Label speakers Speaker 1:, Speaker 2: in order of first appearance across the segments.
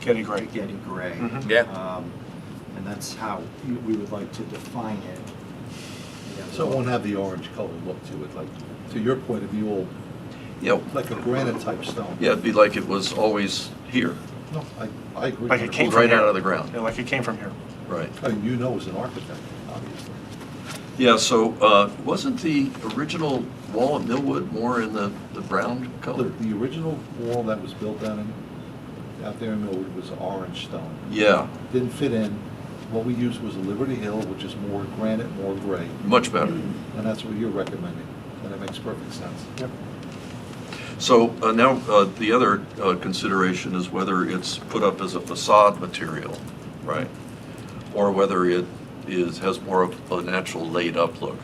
Speaker 1: Getty Gray.
Speaker 2: Getty Gray.
Speaker 1: Mhm.
Speaker 3: Mm-hmm.
Speaker 4: Yeah.
Speaker 2: Um, And that's how we would like to define it.
Speaker 5: So it won't have the orange color look to it, like, to your point of view, old,
Speaker 3: Yeah,
Speaker 5: like a granite type stone.
Speaker 3: yeah, it'd be like it was always here,
Speaker 5: No, I, I agree.
Speaker 1: Like it came from
Speaker 3: right
Speaker 1: here.
Speaker 3: out of the ground,
Speaker 1: Yeah, like it came from here.
Speaker 3: right.
Speaker 5: I mean, you know as an architect, obviously.
Speaker 3: Yeah, so uh, wasn't the original wall at Millwood more in the, the brown
Speaker 5: The,
Speaker 3: color?
Speaker 5: the original wall that was built down in, out there in Millwood was orange stone.
Speaker 3: Yeah,
Speaker 5: Didn't fit in. What we used was a Liberty Hill, which is more granite, more gray,
Speaker 3: much better.
Speaker 5: and that's what you're recommending, and it makes perfect sense.
Speaker 3: So uh, now, uh, the other uh, consideration is whether it's put up as a facade material, right? Or whether it is, has more of a natural laid-up look.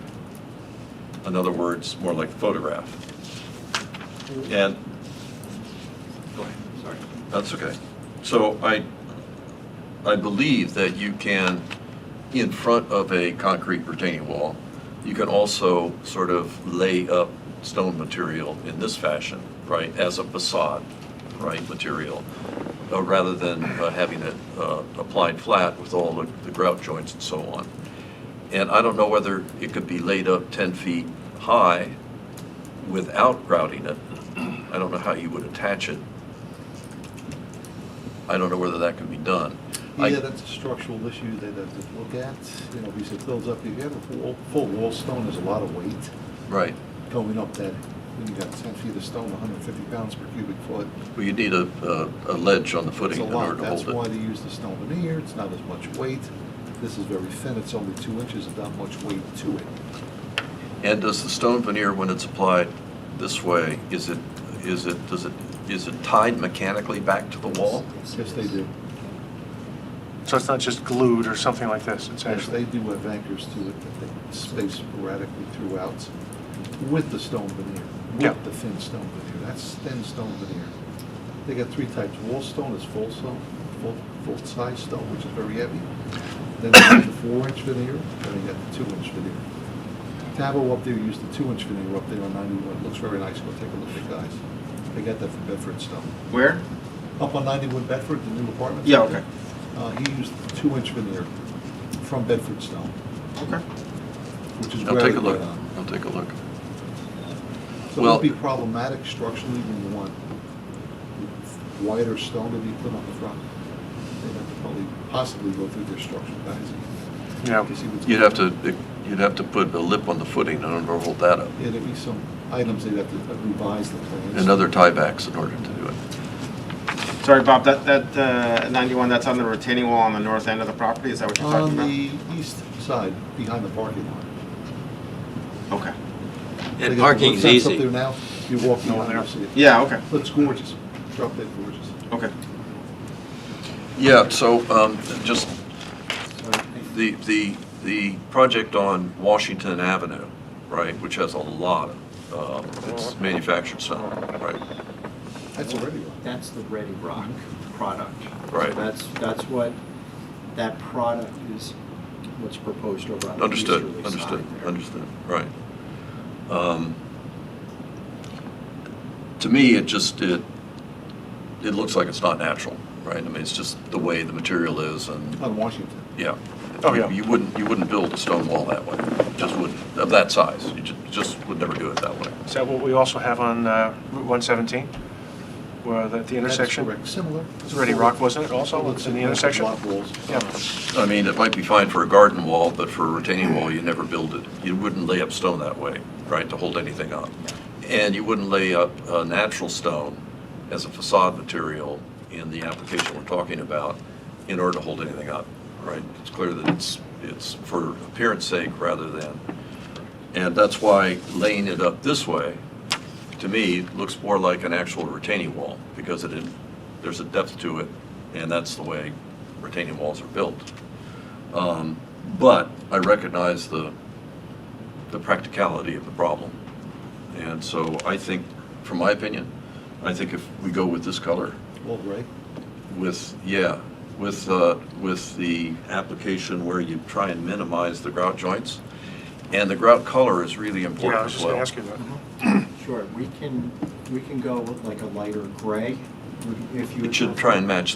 Speaker 3: In other words, more like photograph. And, go ahead.
Speaker 2: Sorry.
Speaker 3: That's okay. So I, I believe that you can, in front of a concrete retaining wall, you can also sort of lay up stone material in this fashion, right, as a facade, right, material, uh, rather than uh, having it uh, applied flat with all the the grout joints and so on. And I don't know whether it could be laid up 10 feet high without grouting it. I don't know how you would attach it I don't know whether that can be done. I-
Speaker 5: Yeah, that's a structural issue that I have to look at, you know, because it builds up, if you have a full, full wall stone, there's a lot of weight
Speaker 3: Right.
Speaker 5: going up that, when you got ten feet of stone, hundred and fifty pounds per cubic foot.
Speaker 3: Well, you need a, a- a ledge on the
Speaker 5: It's
Speaker 3: footing
Speaker 5: a
Speaker 3: in order
Speaker 5: lot,
Speaker 3: to
Speaker 5: that's
Speaker 3: hold
Speaker 5: why
Speaker 3: it.
Speaker 5: they use the stone veneer, it's not as much weight. This is very thin, it's only two inches, and not much weight to it.
Speaker 3: And does the stone veneer, when it's applied this way, is it, is it, does it, is it tied mechanically back to the wall?
Speaker 5: Yes, they do.
Speaker 1: So it's not just glued or something like this, it's
Speaker 5: Yes,
Speaker 1: actually.
Speaker 5: they do have anchors to it that they space sporadically throughout with the stone veneer,
Speaker 1: Yeah.
Speaker 5: with the thin stone veneer. That's thin stone veneer. They got three types. Wall stone is full stone, full, full-size stone, which is very heavy. Then they got the four-inch veneer, then they got the two-inch veneer. Tabo up there used the two-inch veneer up there on 91. It looks very nice. Go take a look, guys. They got that from Bedford Stone.
Speaker 2: Where?
Speaker 5: Up on 91 Bedford, the new apartment.
Speaker 2: Yeah, okay.
Speaker 5: Uh, he used two-inch veneer from Bedford Stone,
Speaker 2: Okay.
Speaker 5: which is
Speaker 3: I'll
Speaker 5: where.
Speaker 3: take
Speaker 5: they
Speaker 3: a look.
Speaker 5: went on.
Speaker 3: I'll take a look.
Speaker 5: So
Speaker 3: Well-
Speaker 5: it'd be problematic structurally when you want wider stone to be put on the front. They'd have to probably possibly go through their structural guys.
Speaker 1: Yeah.
Speaker 5: see what's
Speaker 3: You'd have to,
Speaker 5: going on.
Speaker 3: you'd have to put a lip on the footing in order to hold that up.
Speaker 5: Yeah, there'd be some items they'd have to revise the plans.
Speaker 3: And other tiebacks in order to do it.
Speaker 2: Sorry, Bob, that, that uh, 91, that's on the retaining wall on the north end of the property, is that what you're
Speaker 5: On
Speaker 2: talking about?
Speaker 5: the east side, behind the parking lot.
Speaker 2: Okay.
Speaker 5: They
Speaker 4: And
Speaker 5: got the wood
Speaker 4: parking's
Speaker 5: fence Up
Speaker 4: easy.
Speaker 5: there now, you walk behind,
Speaker 1: there.
Speaker 5: you'll see it.
Speaker 2: Yeah, okay,
Speaker 5: Looks gorgeous. Drop dead gorgeous.
Speaker 2: okay.
Speaker 3: Yeah, so um, just
Speaker 5: Sorry.
Speaker 3: The, the, the project on Washington Avenue, right, which has a lot of, um, it's manufactured stone, right?
Speaker 5: That's already one.
Speaker 2: That's the Ready Rock product.
Speaker 3: Right.
Speaker 2: That's, that's what, that product is what's proposed over on the
Speaker 3: Understood,
Speaker 2: easterly side
Speaker 3: understood,
Speaker 2: there.
Speaker 3: understood, right. Um, To me, it just, it, it looks like it's not natural, right? I mean, it's just the way the material is and,
Speaker 5: On Washington.
Speaker 3: yeah.
Speaker 1: Oh, yeah.
Speaker 3: You wouldn't, you wouldn't build a stone wall that way, just wouldn't, of that size, you ju- just would never do it that way.
Speaker 1: Is that what we also have on uh, Route 117? Where the- the intersection?
Speaker 5: That's correct. Similar.
Speaker 1: It's already rock, wasn't it, also? It's in the intersection?
Speaker 5: Block walls.
Speaker 1: Yeah.
Speaker 3: I mean, it might be fine for a garden wall, but for a retaining wall, you never build it. You wouldn't lay up stone that way, right, to hold anything up. And you wouldn't lay up uh, natural stone as a facade material in the application we're talking about in order to hold anything up, right? It's clear that it's, it's for appearance sake rather than, and that's why laying it up this way, to me, looks more like an actual retaining wall because it, there's a depth to it, and that's the way retaining walls are built. Um, But I recognize the, the practicality of the problem. And so I think, from my opinion, I think if we go with this color,
Speaker 5: Well, right.
Speaker 3: with, yeah, with, uh, with the application where you try and minimize the grout joints, and the grout color is really
Speaker 1: Yeah, I
Speaker 3: important
Speaker 1: was
Speaker 3: as
Speaker 1: just going to
Speaker 3: well.
Speaker 1: ask you that.
Speaker 6: Sure, we can, we can go with like a lighter gray, if you.
Speaker 3: It should try and match